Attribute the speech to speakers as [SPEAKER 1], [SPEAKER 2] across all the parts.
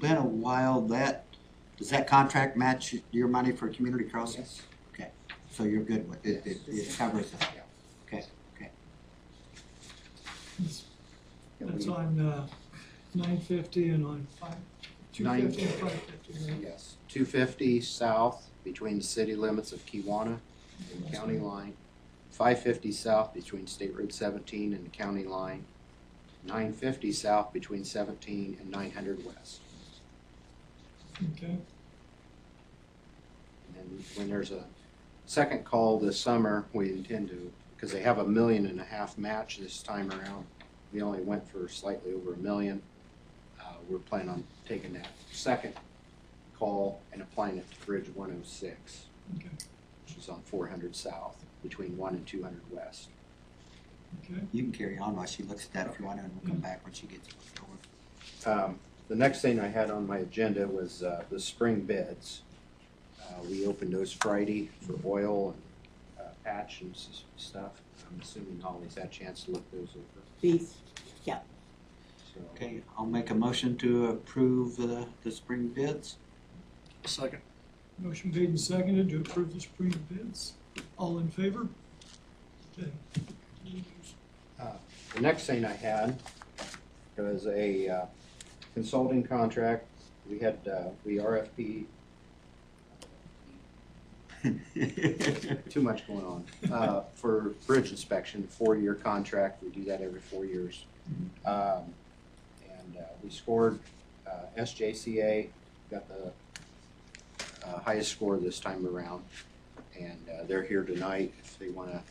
[SPEAKER 1] been a while that, does that contract match your money for community crossing?
[SPEAKER 2] Yes.
[SPEAKER 1] So you're good with it, it, it
[SPEAKER 2] Yes.
[SPEAKER 1] covers that? Okay, okay. Yeah, we-
[SPEAKER 3] That's on, uh, nine fifty and on five, two
[SPEAKER 2] Nine-
[SPEAKER 3] fifty and five fifty, right?
[SPEAKER 2] Yes, two fifty south between the city limits of Kiwanis and county line. Five fifty south between State Road seventeen and the county line. Nine fifty south between seventeen and nine hundred west.
[SPEAKER 3] Okay,
[SPEAKER 2] And then when there's a second call this summer, we intend to, because they have a million and a half match this time around. We only went for slightly over a million. Uh, we're planning on taking that second call and applying it to Bridge one oh six,
[SPEAKER 3] okay,
[SPEAKER 2] which is on four hundred south, between one and two hundred west.
[SPEAKER 3] okay.
[SPEAKER 1] You can carry on while she looks at that if you want, and we'll come back when she gets over.
[SPEAKER 2] Um, The next thing I had on my agenda was uh, the spring beds. Uh, We opened those Friday for oil and uh, patch and s- stuff. I'm assuming Holly's had a chance to look those over.
[SPEAKER 4] These,
[SPEAKER 2] So,
[SPEAKER 1] Okay, I'll make a motion to approve the, the spring bids.
[SPEAKER 5] Second.
[SPEAKER 3] Motion made and seconded to approve the spring bids. All in favor? Okay.
[SPEAKER 2] The next thing I had was a uh, consulting contract. We had, uh, we RFP, too much going on, uh, for bridge inspection, four-year contract. We do that every four years. Um, And uh, we scored uh, SJCA, got the uh, highest score this time around. And uh, they're here tonight if they want to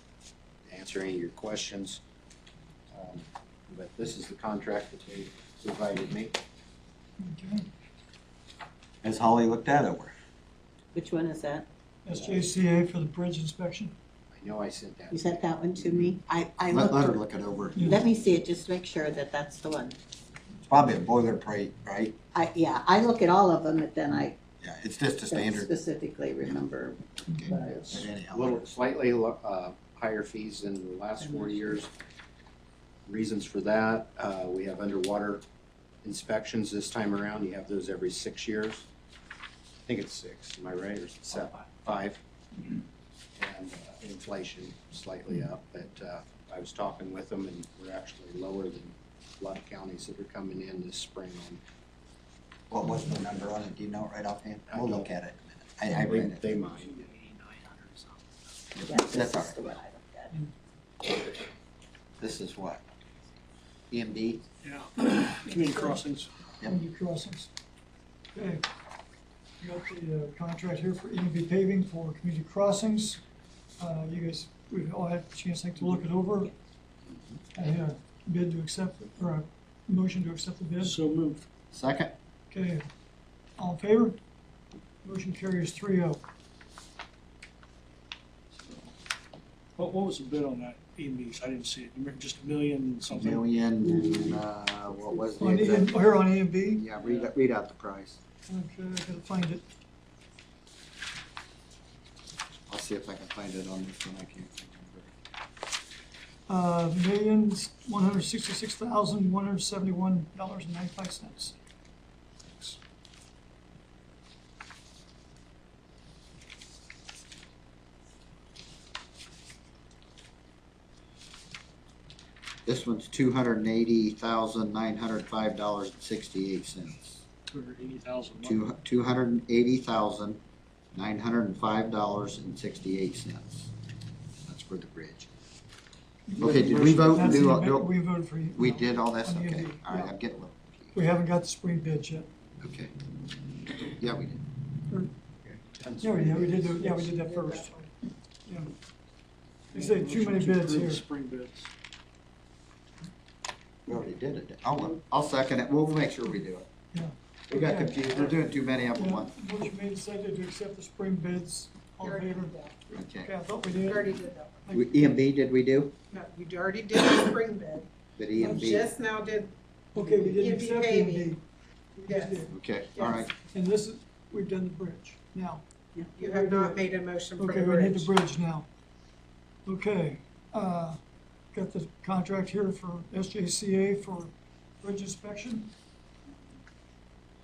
[SPEAKER 2] answer any of your questions. Um, But this is the contract that they provided me.
[SPEAKER 3] Okay.
[SPEAKER 1] Has Holly looked that over?
[SPEAKER 4] which one is that?
[SPEAKER 3] SJCA for the bridge inspection?
[SPEAKER 2] I know I sent that.
[SPEAKER 4] You sent that one to me? I, I
[SPEAKER 1] Let, let her
[SPEAKER 4] looked,
[SPEAKER 1] look it over.
[SPEAKER 3] Yeah.
[SPEAKER 4] let me see it, just to make sure that that's the one.
[SPEAKER 1] It's probably a boilerplate, right?
[SPEAKER 4] I, yeah, I look at all of them, but then I
[SPEAKER 1] Yeah, it's just a
[SPEAKER 4] don't
[SPEAKER 1] standard.
[SPEAKER 4] specifically remember.
[SPEAKER 3] Okay.
[SPEAKER 4] what I-
[SPEAKER 2] It's
[SPEAKER 1] But anyhow.
[SPEAKER 2] a little slightly lo- uh, higher fees than the last four years. Reasons for that, uh, we have underwater inspections this time around. You have those every six years. I think it's six, am I right, or seven? Five. Mm-hmm. And uh, inflation slightly up, but uh, I was talking with them and we're actually lower than a lot of counties that are coming in this spring on
[SPEAKER 1] What was the number on it? Do you know it right offhand?
[SPEAKER 2] I
[SPEAKER 1] We'll
[SPEAKER 2] don't.
[SPEAKER 1] look at it. in a minute. I, I read it.
[SPEAKER 2] They mind.
[SPEAKER 4] Yeah,
[SPEAKER 1] That's
[SPEAKER 4] this
[SPEAKER 1] all
[SPEAKER 4] is
[SPEAKER 1] right.
[SPEAKER 4] the one I looked at.
[SPEAKER 1] This is what? EMD?
[SPEAKER 5] Yeah. Community crossings.
[SPEAKER 1] Yep.
[SPEAKER 3] Community crossings. Okay. You got the uh, contract here for EMB paving for community crossings. Uh, You guys, we've all had a chance, I think, to look it over. I had a bid to accept, or a motion to accept the bid.
[SPEAKER 5] So moved.
[SPEAKER 1] Second?
[SPEAKER 3] Okay, all in favor? Motion carries three oh.
[SPEAKER 5] What, what was the bid on that EMBs? I didn't see it. You remember just a million something?
[SPEAKER 1] Million and, uh, what was the
[SPEAKER 3] On E,
[SPEAKER 1] exact?
[SPEAKER 3] here on EMB,
[SPEAKER 1] Yeah, read, it- read out the price.
[SPEAKER 3] okay, I gotta find it.
[SPEAKER 1] I'll see if I can find it on this one. I can't think of it.
[SPEAKER 3] Uh, millions, one hundred sixty-six thousand, one hundred seventy-one dollars and ninety-five cents.
[SPEAKER 1] This one's two hundred and eighty thousand, nine hundred five dollars and sixty-eight cents.
[SPEAKER 5] Two hundred eighty thousand.
[SPEAKER 1] Two, two hundred and eighty thousand, nine hundred and five dollars and sixty-eight cents. That's for the bridge. Okay, did we vote? and
[SPEAKER 3] That's
[SPEAKER 1] do-
[SPEAKER 3] the amendment
[SPEAKER 1] do-
[SPEAKER 3] We voted for you.
[SPEAKER 1] We
[SPEAKER 3] no.
[SPEAKER 1] did all this?
[SPEAKER 3] On the
[SPEAKER 1] Okay,
[SPEAKER 3] MD,
[SPEAKER 1] all right,
[SPEAKER 3] yeah.
[SPEAKER 1] I'm getting a little,
[SPEAKER 3] We haven't got the spring bid yet.
[SPEAKER 1] okay. Yeah, we did.
[SPEAKER 3] Yeah, we, yeah, we did, do- yeah, we did that first. Yeah. You said too many bids here.
[SPEAKER 5] Spring bids.
[SPEAKER 1] We already did it. I'll, I'll second it. We'll make sure we do it.
[SPEAKER 3] Yeah.
[SPEAKER 1] We got confused. We're doing too many of them
[SPEAKER 3] Yeah,
[SPEAKER 1] at once.
[SPEAKER 3] Motion made and seconded to accept the spring bids. All in favor? Okay,
[SPEAKER 1] Okay.
[SPEAKER 3] I thought we
[SPEAKER 6] You
[SPEAKER 3] did.
[SPEAKER 6] already did that one.
[SPEAKER 1] We- EMB, did we do?
[SPEAKER 6] No, you already did the spring bed.
[SPEAKER 1] Did E
[SPEAKER 6] You
[SPEAKER 1] EMB?
[SPEAKER 6] just now did,
[SPEAKER 3] Okay, we did
[SPEAKER 6] You'd be
[SPEAKER 3] accept
[SPEAKER 6] paving.
[SPEAKER 3] EMD.
[SPEAKER 6] yes,
[SPEAKER 1] Okay, all right.
[SPEAKER 3] And this is, we've done the bridge now.
[SPEAKER 6] you have not made a motion for
[SPEAKER 3] Okay,
[SPEAKER 6] the
[SPEAKER 3] we need the
[SPEAKER 6] bridge.
[SPEAKER 3] bridge now. Okay, uh, got the contract here for SJCA for bridge inspection.